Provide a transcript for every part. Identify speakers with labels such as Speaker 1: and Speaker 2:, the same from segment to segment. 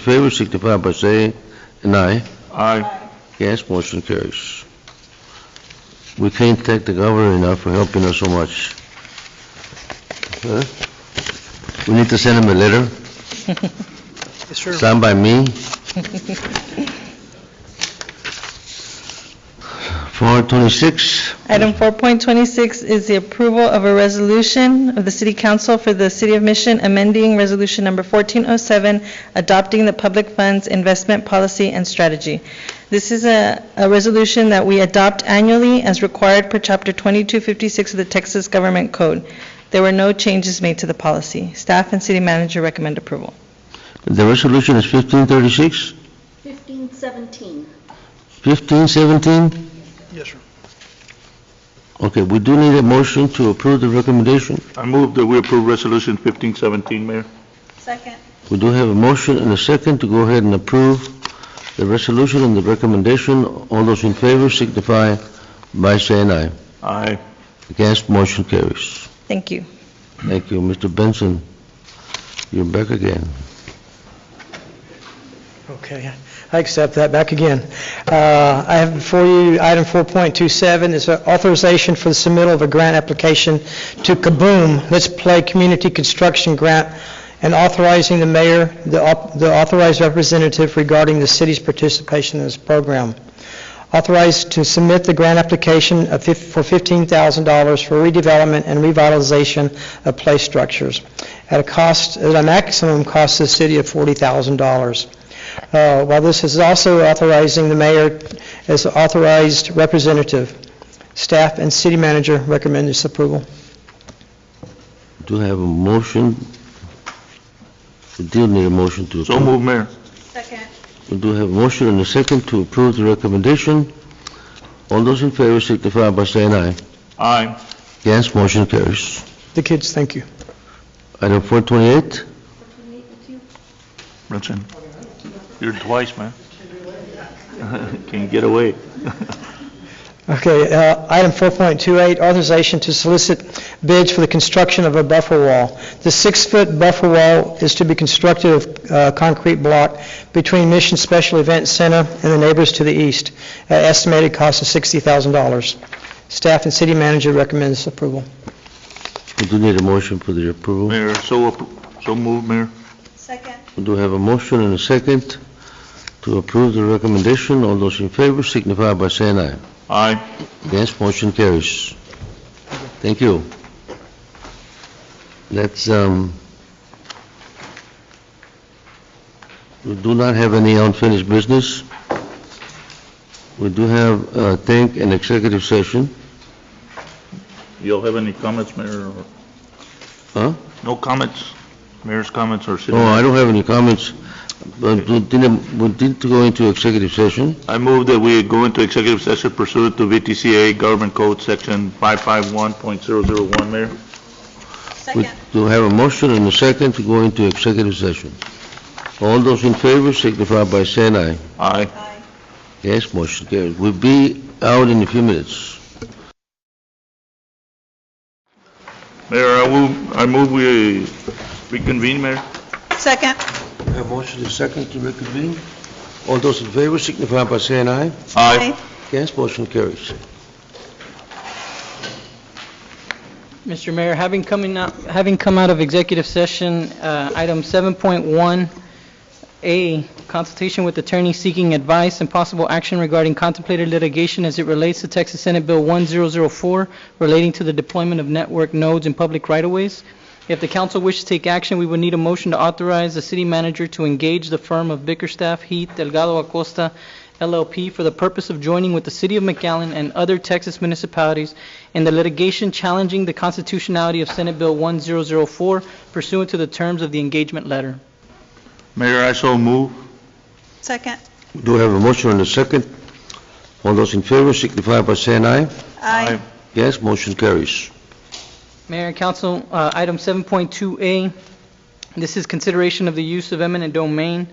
Speaker 1: favor signify by saying an aye.
Speaker 2: Aye.
Speaker 1: Yes, motion carries. We can't thank the governor enough for helping us so much. Huh? We need to send him a letter,
Speaker 3: Sure.
Speaker 1: signed by me. Four twenty-six,
Speaker 3: Item 4.26 is the approval of a resolution of the City Council for the City of Mission amending Resolution Number 1407, adopting the public funds investment policy and strategy. This is a, a resolution that we adopt annually as required per Chapter 2256 of the Texas Government Code. There were no changes made to the policy. Staff and city manager recommend approval.
Speaker 1: the resolution is fifteen thirty-six,
Speaker 4: 1517.
Speaker 1: fifteen seventeen?
Speaker 2: Yes, sir.
Speaker 1: Okay, we do need a motion to approve the recommendation.
Speaker 2: I move that we approve Resolution 1517, Mayor.
Speaker 4: Second.
Speaker 1: We do have a motion and a second to go ahead and approve the resolution and the recommendation. All those in favor signify by saying aye.
Speaker 2: Aye.
Speaker 1: Against, motion carries.
Speaker 3: Thank you.
Speaker 1: Thank you, Mr. Benson. You're back again.
Speaker 5: Okay, I accept that, back again. Uh, I have before you, item 4.27 is authorization for the submittal of a grant application to Kaboom, Let's Play Community Construction Grant, and authorizing the mayor, the au- the authorized representative regarding the city's participation in this program. Authorized to submit the grant application of fif- for $15,000 for redevelopment and revitalization of place structures at a cost, at a maximum cost to the city of $40,000. Uh, While this is also authorizing the mayor as authorized representative, staff and city manager recommend this approval.
Speaker 1: Do have a motion? We do need a motion to
Speaker 2: So
Speaker 1: approve.
Speaker 2: move, Mayor.
Speaker 4: Second.
Speaker 1: We do have a motion and a second to approve the recommendation. All those in favor signify by saying aye.
Speaker 2: Aye.
Speaker 1: Against, motion carries.
Speaker 5: The kids, thank you.
Speaker 1: Item 428?
Speaker 2: Benson. You're twice, man. Can you get away?
Speaker 5: Okay, uh, item 4.28, authorization to solicit bids for the construction of a buffer wall. The six-foot buffer wall is to be constructed of uh, concrete block between Mission Special Event Center and the neighbors to the east, at estimated cost of $60,000. Staff and city manager recommend this approval.
Speaker 1: We do need a motion for the approval.
Speaker 2: Mayor, so, appro- so move, Mayor.
Speaker 4: Second.
Speaker 1: We do have a motion and a second to approve the recommendation. All those in favor signify by saying aye.
Speaker 2: Aye.
Speaker 1: Against, motion carries. Thank you. Let's, um, we do not have any unfinished business. We do have, uh, think, an executive session.
Speaker 2: Y'all have any comments, Mayor? or-
Speaker 1: Huh?
Speaker 2: No comments? Mayor's comments or city?
Speaker 1: Oh, I don't have any comments, but we didn't, we did go into executive session.
Speaker 2: I move that we go into executive session pursuant to VTCA Government Code Section 551.001, Mayor.
Speaker 1: We
Speaker 4: Second.
Speaker 1: do have a motion and a second to go into executive session. All those in favor signify by saying aye.
Speaker 2: Aye.
Speaker 4: Aye.
Speaker 1: Yes, motion carries. We'll be out in a few minutes.
Speaker 2: Mayor, I move, I move we reconvene, Mayor.
Speaker 4: Second.
Speaker 1: A motion and second to reconvene. All those in favor signify by saying aye.
Speaker 4: Aye.
Speaker 1: Yes, motion carries.
Speaker 6: Mr. Mayor, having coming out, having come out of executive session, uh, item 7.1A, consultation with attorney seeking advice and possible action regarding contemplated litigation as it relates to Texas Senate Bill 1004 relating to the deployment of network nodes in public right-of-ways. If the council wishes to take action, we would need a motion to authorize the city manager to engage the firm of Bickerstaff, Heath, Delgado Acosta, LLP for the purpose of joining with the City of McAllen and other Texas municipalities in the litigation challenging the constitutionality of Senate Bill 1004 pursuant to the terms of the engagement letter.
Speaker 2: Mayor, I so move.
Speaker 4: Second.
Speaker 1: We do have a motion and a second. All those in favor signify by saying aye.
Speaker 4: Aye.
Speaker 1: Yes, motion carries.
Speaker 6: Mayor and council, uh, item 7.2A, this is consideration of the use of eminent domain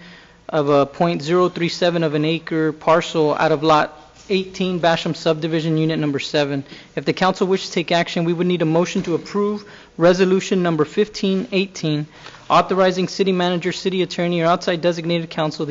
Speaker 6: of a .037 of an acre parcel out of Lot 18 Basham subdivision, unit number 7. If the council wishes to take action, we would need a motion to approve Resolution Number 1518, authorizing city manager, city attorney, or outside designated counsel